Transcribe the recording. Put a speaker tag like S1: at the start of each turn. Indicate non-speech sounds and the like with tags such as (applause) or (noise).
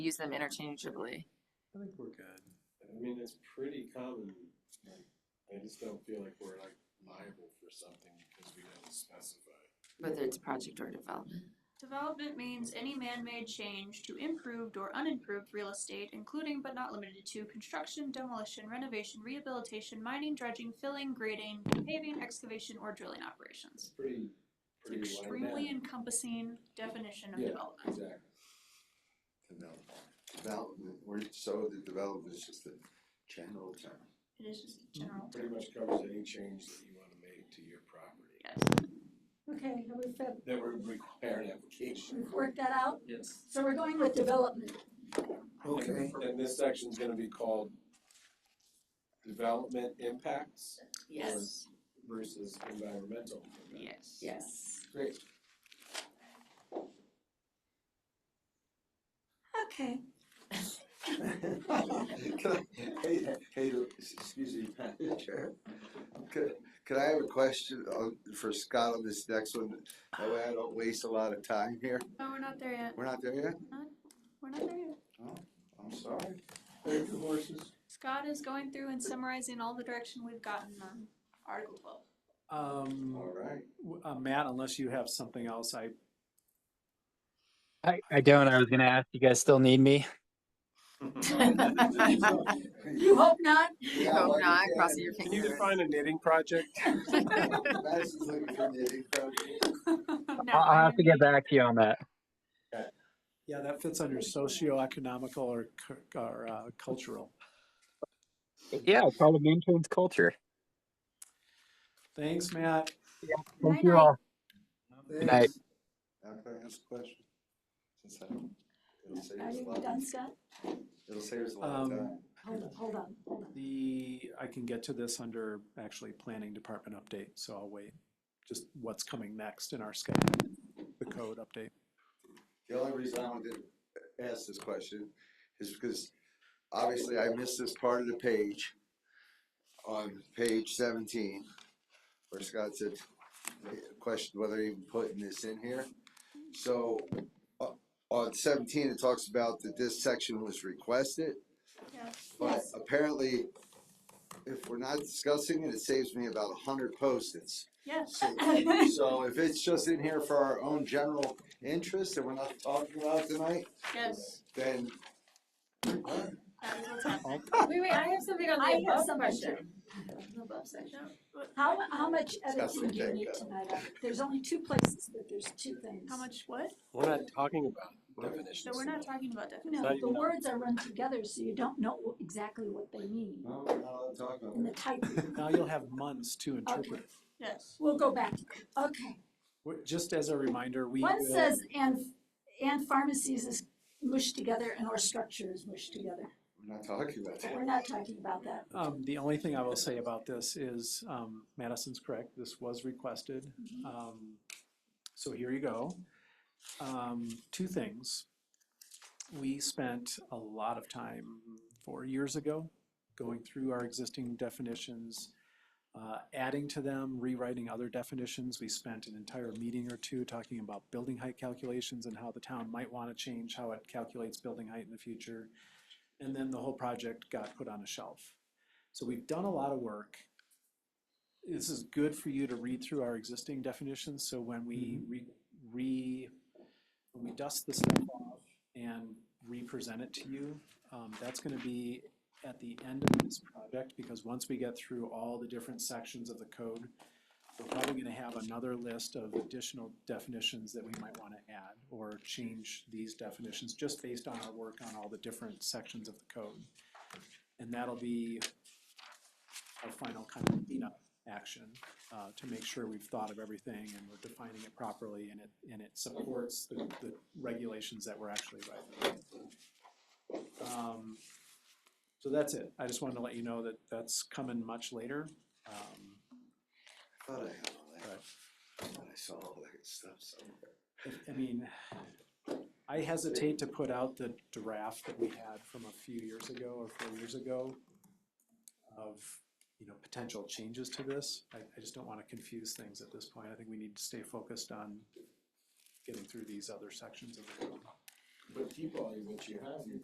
S1: use them interchangeably.
S2: I think we're good.
S3: I mean, it's pretty common, like, I just don't feel like we're like liable for something because we didn't specify.
S1: whether it's project or development.
S4: Development means any man-made change to improved or unimproved real estate, including but not limited to construction, demolition, renovation, rehabilitation, mining, dredging, filling, grading, paving, excavation, or drilling operations.
S3: It's pretty,
S4: It's an
S3: pretty wide
S4: extremely
S3: net.
S4: encompassing definition of
S3: Yeah.
S4: development.
S3: Exactly.
S5: Development, development, we're, so the development is just a general term.
S4: It is just
S6: Mm-hmm.
S4: a general
S3: Pretty
S4: term.
S3: much covers any change that you wanna make to your property
S4: Yes.
S7: Okay, have we fed-
S3: that would require an application.
S7: we've worked that out?
S3: Yes.
S7: So we're going with development.
S5: Okay.
S3: And this section's gonna be called development impacts Yes. versus environmental. impacts.
S1: Yes.
S7: Yes.
S3: Great.
S7: Okay,
S5: Can I- Hey, hey, s- excuse me, Madam Chair. Could, could I have a question on, for Scott on this next one? That way I don't waste a lot of time here.
S4: No, Oh, we're not there yet.
S5: We're not there yet?
S4: We're not there yet.
S5: I'm sorry.
S3: Thank you, horses.
S4: Scott is going through and summarizing all the direction we've gotten on Article twelve.
S2: Um,
S5: All
S1: (laughs)
S5: right.
S2: w- uh, Matt, unless you have something else, I,
S6: I, I don't. I was going to ask, you guys still need me?
S7: (laughs)
S3: (laughs)
S7: you hope not?
S5: Yeah,
S1: Hope
S5: like
S1: not,
S5: I said,
S1: crossing your fingers.
S3: a knitting project?
S5: Madison's looking for the knitting project.
S4: (laughs) No,
S6: I'll, I'll have to
S4: I'm-
S6: get back to you on that.
S2: yeah, that fits under socioeconomical or, cu- or uh, cultural.
S6: Yeah, it probably maintains culture.
S2: Thanks, Matt.
S6: Thank
S4: Night,
S6: you
S4: night.
S6: all. night.
S5: Thanks. Now can I ask a question? Since I, it'll save
S7: Are
S5: us a
S7: you
S5: lot,
S7: done, Scott?
S5: it'll save us a lot of
S2: Um,
S5: time.
S7: Hold on, hold on, hold on.
S2: The, I can get to this under actually planning department update, so I'll wait. Just what's coming next in our schedule, the code update.
S5: The only reason I wanted to ask this question is because obviously I missed this part of the page on page seventeen, where Scott said, questioned whether even putting this in here. So, uh, on seventeen, it talks about that this section was requested.
S4: Yeah.
S5: But
S7: Yes.
S5: apparently, if we're not discussing it, it saves me about a hundred post-its.
S4: Yes.
S5: So
S7: (laughs)
S5: so if it's just in here for our own general interest and we're not talking about it tonight,
S4: (laughs) Yes.
S5: then.
S4: That is what's happening.
S1: Wait, wait, I have something on the
S7: I have
S1: above
S7: something.
S1: question. The above section.
S7: How, how much editing
S5: Disgusting
S7: do you
S5: thing,
S7: need
S5: uh,
S7: tonight? There's only two places, but there's two things.
S4: How much what?
S3: We're not talking about
S4: So
S3: definitions.
S4: we're not talking about definition.
S7: No,
S3: Not
S7: the
S3: even-
S7: words are run together, so you don't know exactly what they mean
S5: No, we're not allowed to talk about
S7: in the
S5: it.
S7: type.
S2: Now you'll have months to interpret.
S4: Yes.
S7: We'll go back. to that. Okay.
S2: We're- Just as a reminder, we
S7: One
S2: will-
S7: says, and, and pharmacies is mushed together and or structure is mushed together.
S5: We're not talking about
S7: But
S5: that.
S7: we're not talking about that.
S2: Um, the only thing I will say about this is, um, Madison's correct, this was requested. Um, so here you go. Um, two things. We spent a lot of time four years ago going through our existing definitions, uh, adding to them, rewriting other definitions. We spent an entire meeting or two talking about building height calculations and how the town might want to change how it calculates building height in the future. And then the whole project got put on a shelf. So we've done a lot of work. This is good for you to read through our existing definitions, so when we re, re, when we dust the stuff off and re-present it to you, um, that's gonna be at the end of this project, because once we get through all the different sections of the code, we're probably gonna have another list of additional definitions that we might wanna add, or change these definitions, just based on our work on all the different sections of the code. And that'll be our final kind of cleanup action uh, to make sure we've thought of everything and we're defining it properly and it, and it supports the, the regulations that we're actually writing. Um, So that's it. I just wanted to let you know that that's coming much later. Um,
S5: I thought I had all that. I thought I saw all that stuff somewhere.
S2: if- I mean, I hesitate to put out the draft that we had from a few years ago or four years ago of, you know, potential changes to this. I, I just don't want to confuse things at this point. I think we need to stay focused on getting through these other sections of the code.
S3: but keep all what you have, you